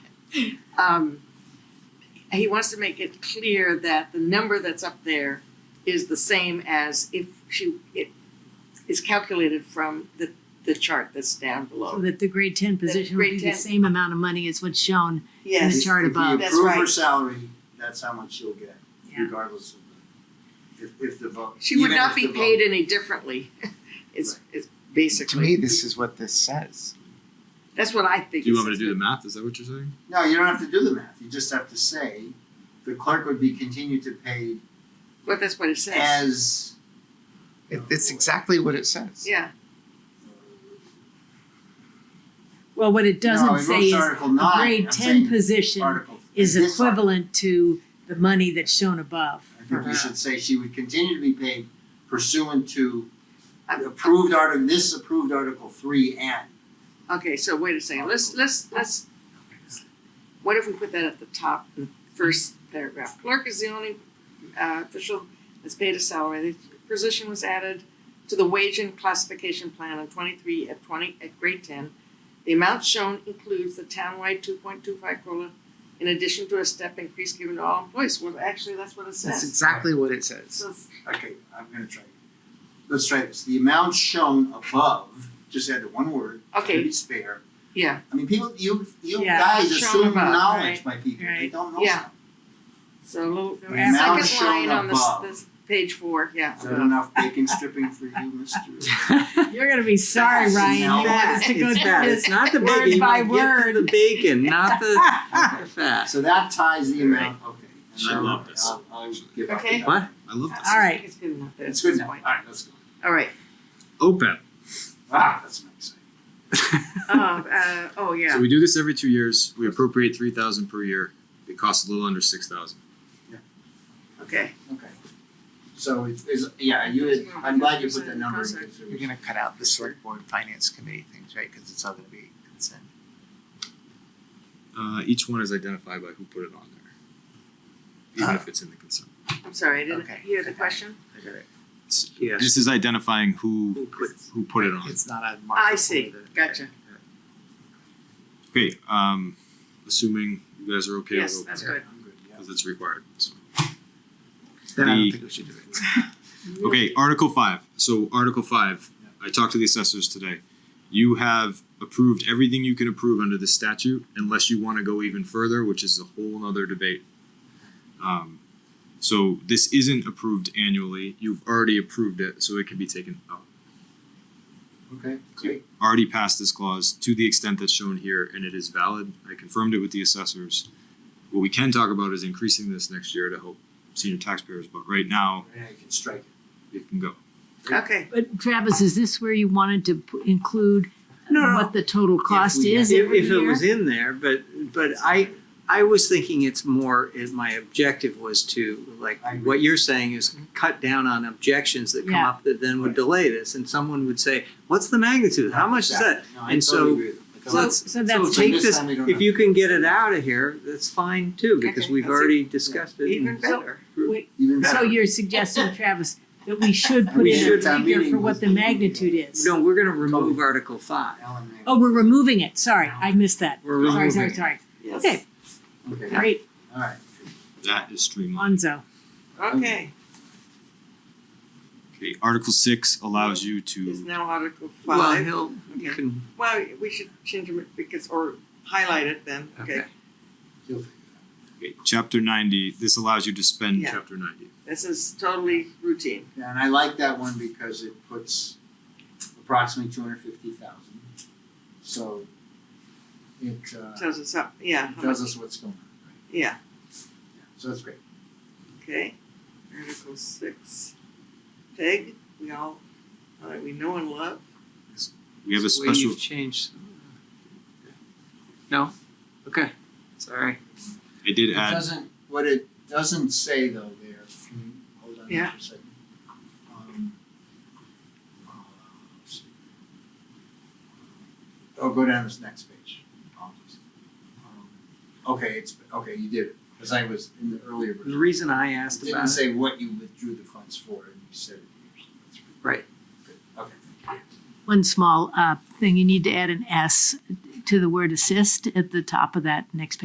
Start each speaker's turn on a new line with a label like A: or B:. A: Um, he wants to make it clear that the number that's up there is the same as if she, it is calculated from the, the chart that's down
B: So
A: below.
B: Oh, that the grade ten position would
A: grade
B: be the
A: 10
B: same amount of money as what's shown in the
A: Yes,
B: chart above.
A: That's
C: If you approve her
A: right.
C: salary, that's how much she'll get,
B: Yeah.
C: regardless of the, if, if the vote.
A: she would
C: even
A: not
C: if
A: be
C: the vote-
A: paid any differently. It's, it's
D: To me,
A: basically,
D: this is what this says.
A: that's what I think.
E: Do you
A: it
E: want me to
A: says.
E: do the math? Is that what you're saying?
C: No, you don't have to do the math, you just have to say, the clerk would be continued to pay
A: But that's what it says,
C: as.
D: It, it's exactly what it says.
A: yeah.
B: Well, what it
C: No,
B: doesn't
C: it
B: say
C: goes
B: is
C: to
B: a
C: Article nine,
B: grade ten
C: I'm saying
B: position
C: Article.
B: is
C: this article.
B: equivalent to the money that's shown above
C: I
B: for
C: think
B: her.
C: we should say she would continue to be paid pursuant to
A: I'm-
C: approved article, this approved Article three and.
A: Okay, so wait a second, let's, let's, let's, what if we put that at the top, the first paragraph? Clerk is the only uh, official that's paid a salary, the position was added to the wage and classification plan on twenty-three at twenty, at grade ten. The amount shown includes the townwide two point two five COLA in addition to a step increase given to all employees, well, actually, that's what it
D: That's
A: says.
D: exactly what it says.
A: So it's-
C: Okay, I'm gonna try. Let's try this. The amount shown above, just add the one word,
A: Okay.
C: to be spare.
A: Yeah.
C: I mean, people, you, you
B: Yeah,
C: guys
A: shown
C: assume
A: above,
C: knowledge by people. They
B: right,
C: don't know
A: yeah.
C: something.
A: So, a little-
B: The amount
A: second line
C: shown
A: on this,
C: above.
A: this, page four, yeah.
C: Is that enough bacon stripping for you, Mr.?
B: You're gonna be sorry, Ryan, you
C: No.
B: want us to go
F: It's
B: through
F: fat.
B: this.
F: It's not the
B: word
F: bacon. You
B: by
F: wanna get to
B: word.
F: the bacon, not the the fat.
C: So that ties the amount, okay. And
E: Sure.
C: then
E: Love this.
C: I'll, I'll give up.
A: Okay.
F: What?
E: I love this.
B: All right.
A: It's good enough.
C: It's good now.
A: point.
C: Alright, let's go.
A: All right,
E: OPEP.
C: Ah, that's nice.
A: Uh, uh, oh, yeah.
E: So we do this every two years. We appropriate three thousand per year. It costs a little under six thousand.
A: Okay.
C: Okay. So it is, yeah, you, had- I'm glad you put that number in. because it
D: You're
C: was-
D: gonna cut out the select board finance committee things, right? Cause it's all gonna be consent.
E: Uh, each one is identified by who put it on there, even if it's in the consent.
A: I'm sorry, I didn't
D: Okay.
A: hear the question.
D: I got it.
E: It's-
F: Yes.
E: This is identifying who
F: Who put-
E: who put it on.
D: It's not a mark.
A: I see. Gotcha.
E: Okay. Um, assuming you guys are okay
A: Yes,
E: with
A: that's
E: OPEP
A: good.
C: I'm good, yeah.
E: because it's required. So.
D: Then I
E: The-
D: don't think we should do it.
E: Okay, Article five. So Article five, I talked to the assessors today. You have approved everything you can approve under the statute unless you wanna go even further, which is a whole nother debate. Um, so this isn't approved annually. You've already approved it, so it can be taken out.
C: Okay, great.
E: Already passed this clause to the extent that's shown here and it is valid. I confirmed it with the assessors. What we can talk about is increasing this next year to help senior taxpayers, but right now
C: Yeah, you can strike it.
E: it can go.
A: Okay.
B: But Travis, is this where you wanted to p- include
F: No, no.
B: what the total cost
C: we-
B: is every
F: if, if
B: year?
F: it was in there, but but I I was thinking it's more. It, my objective was to like
C: I agree.
F: what you're saying is cut down on objections that come
B: Yeah.
F: up that then would
C: Right.
F: delay this, and someone would say, "What's the magnitude? How much is that?"
C: No, I totally
F: And so-
C: agree with you. Because
B: So,
F: let's-
B: so that's,
F: so take
C: this
F: this.
C: time we don't
F: If
C: have-
F: you can get it out of here, that's fine too, because
A: Okay,
F: we've
A: that's
F: already discussed it.
A: Even
F: and-
A: better.
C: Even
B: so
C: better.
B: you're suggesting, Travis, that we should put
C: We
B: in a
C: should, town
B: figure
C: meeting
B: for
C: was-
B: what the magnitude is.
F: No, we're going to remove Article Five.
C: Alan May.
B: Oh, we're removing it, sorry, I missed that.
F: We're
B: Sorry,
F: removing.
B: sorry,
F: it.
B: sorry.
A: Yes.
B: Okay,
C: Okay,
B: great,
C: all right.
E: That is streamlined.
B: Monzo.
A: Okay.
E: Okay, Article six allows you
A: Is
E: to,
A: now Article
F: Well,
A: Five.
F: he'll you
A: Okay.
F: can
A: Well, we should change them because, or highlight it then. Okay.
F: Okay.
C: You'll figure
E: okay, chapter ninety, this allows you to spend
A: Yeah.
E: chapter ninety.
A: This is totally routine.
C: it out. And I like that one because it puts approximately two hundred fifty thousand. So it uh
A: Tells us up, yeah. how
C: tells
A: much-
C: us what's going on, right?
A: Yeah,
C: Yeah, So that's great.
A: okay. Article six. Peg, we all, all that we know and love.
E: We have a
F: So wait,
E: special,
F: You've changed. uh, No. Okay. Sorry.
E: I did
C: It
E: add,
C: doesn't, what it doesn't say though there, can you hold on
A: Yeah.
C: for a second? Um, uh, let's see. Oh, go down this next page, apologies. Um, Okay, it's, okay, you did it, because I was in the earlier
F: The
C: version.
F: reason I
C: It
F: asked
C: didn't
F: about it,
C: say what you withdrew the funds for, and you said it here, so that's good.
F: Right.
C: Good, okay.
B: One small, uh, thing, you need to add an S to the word assist at the top of that next page.